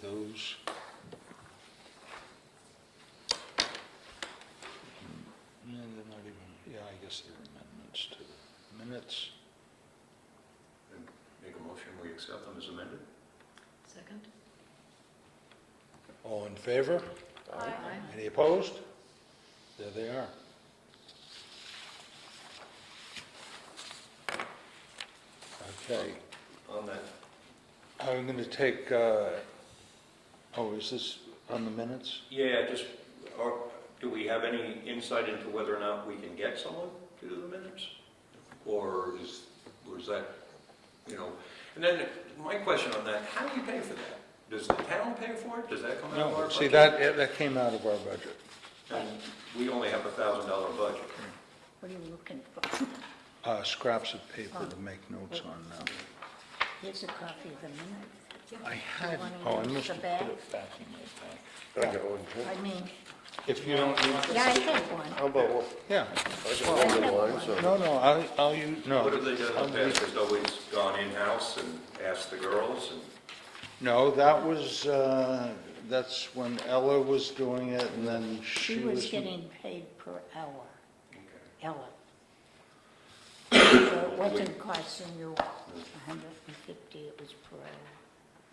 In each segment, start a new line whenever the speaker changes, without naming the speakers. those. No, Hmm. they're not even, yeah, I guess they're amendments to the minutes.
Make a motion, we accept them as amended?
Second?
All in favor?
Aye.
Any opposed? There they are. Okay,
On that.
I'm going to take, uh, oh, is this on the minutes?
Yeah, just, or, do we have any insight into whether or not we can get someone to do the minutes? Or is, or is that, you know, and then my question on that, how do you pay for that? Does the town pay for it? Does that come out of our
No,
budget?
see, that, that came out of our budget.
And we only have a thousand dollar budget.
What are you looking for?
Uh, Scraps of paper to make notes on um, now.
Here's a copy of the minutes.
I
You
had,
wanna
oh, I
use
must
the
have
bag?
put it back in my pack.
I got one too.
I mean,
If you don't, need-
yeah, I have one.
How about, one-
yeah,
I got one of mine, so-
no, no, I'll, I'll use, no.
What have they done in the
I'll
past? Has always gone in-house and asked the girls and?
No, that was, uh, that's when Ella was doing it, and then
She
she was...
was getting paid per hour,
Okay.
Ella. So it wasn't costing you a hundred and fifty, it was per hour.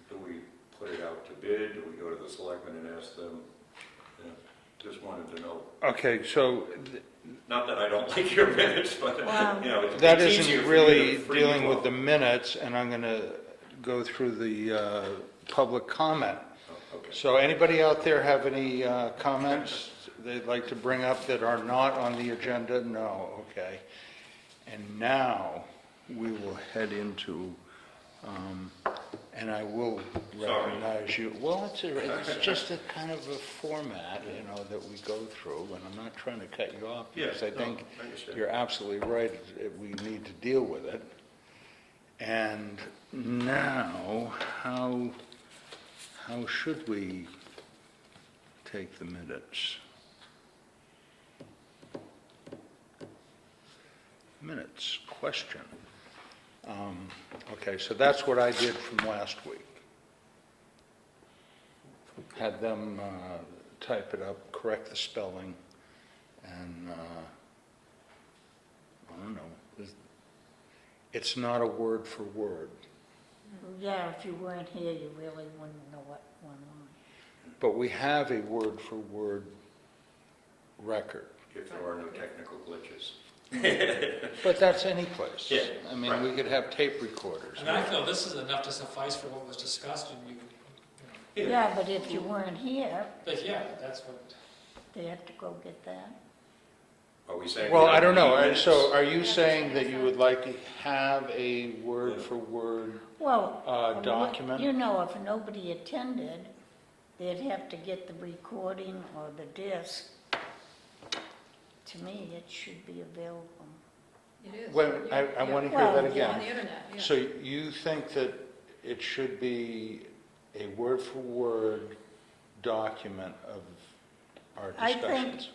Do we put it out to bid? Do we go to the selectmen and ask them? Yeah, Just wanted to know.
Okay, so th-
Not that I don't like your minutes, but,
Wow.
you know, it's
that
it's easier
isn't
for
really
you to free
dealing with the
flow.
minutes, and I'm going to go through the uh, public comment.
Oh, Okay.
So anybody out there have any uh, comments they'd like to bring up that are not on the agenda? No, okay. And now, we will head into, um, and I will
Sorry.
recognize you. Well, it's, a- it's just a kind of a format, you know, that we go through, and I'm not trying to cut you off.
Yeah,
Because I
no,
think
I understand.
you're absolutely right, that we need to deal with it. And now, how, how should we take the minutes? Minutes, question. Um, Okay, so that's what I did from last week. Had them uh, type it up, correct the spelling, and, uh, I don't know, it's- it's not a word for word,
Yeah, if you weren't here, you really wouldn't know what went on.
but we have a word for word record.
If there are no technical glitches.
But that's any place.
Yeah,
I mean, we could have tape recorders.
And I feel this is enough to suffice for what was discussed, and you, you know,
Yeah, but if you weren't here,
but yeah, that's what.
they had to go get that.
Are we saying? we
Well, I don't
don't
know,
need
and so
minutes?
are you saying that you would like to have a word for word?
Well.
Uh,
I mean,
document?
You know, if nobody attended, they'd have to get the recording or the disc. To me, it should be available.
It is.
Wait, I, I
Yeah.
want to hear
Well,
that
yeah,
On
again.
the internet, yeah.
So you think that it should be a word for word document of our
I think-
discussions?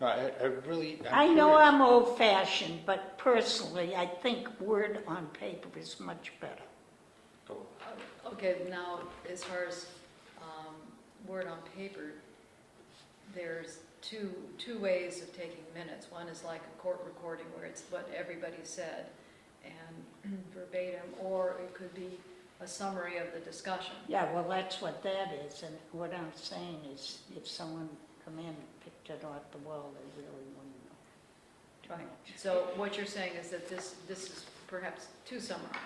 No, I, I really,
I
I'm
know
curious.
I'm old-fashioned, but personally, I think word on paper is much better.
Oh, Okay, now, as far as um, word on paper, there's two, two ways of taking minutes. One is like a court recording where it's what everybody said and verbatim, or it could be a summary of the discussion.
Yeah, well, that's what that is, and what I'm saying is, if someone come in and picked it off the wall, they really wouldn't know.
Right. So what you're saying is that this, this is perhaps too summarized,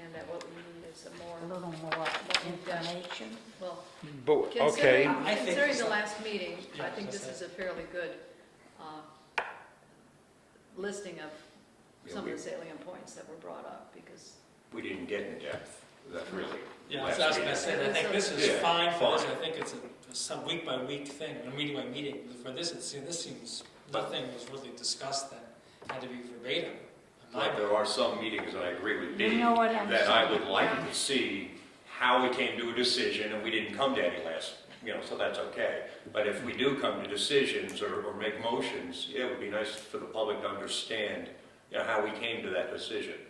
and that what we need is a
A
more,
little more information.
well,
But, okay.
Considering,
I think-
considering the last meeting, I
Yeah,
think this
that's
is a fairly good uh, listing of
Yeah,
some of
we-
the salient points that were brought up, because,
We didn't get in depth, that really.
Yeah,
last
that's what I was
meeting.
gonna say, I think this is
Yeah,
fine for us,
fine.
I think it's a, some week by week thing, and meeting by meeting, for this, it seems, this seems, nothing was really discussed that had to be verbatim. in my
But
opinion.
there are some meetings, and I agree with
You
Dave,
know what I'm
that I
saying.
would like to see how we came to a decision, and we didn't come to any last, you know, so that's okay. But if we do come to decisions or, or make motions, yeah, it would be nice for the public to understand, you know, how we came to that decision.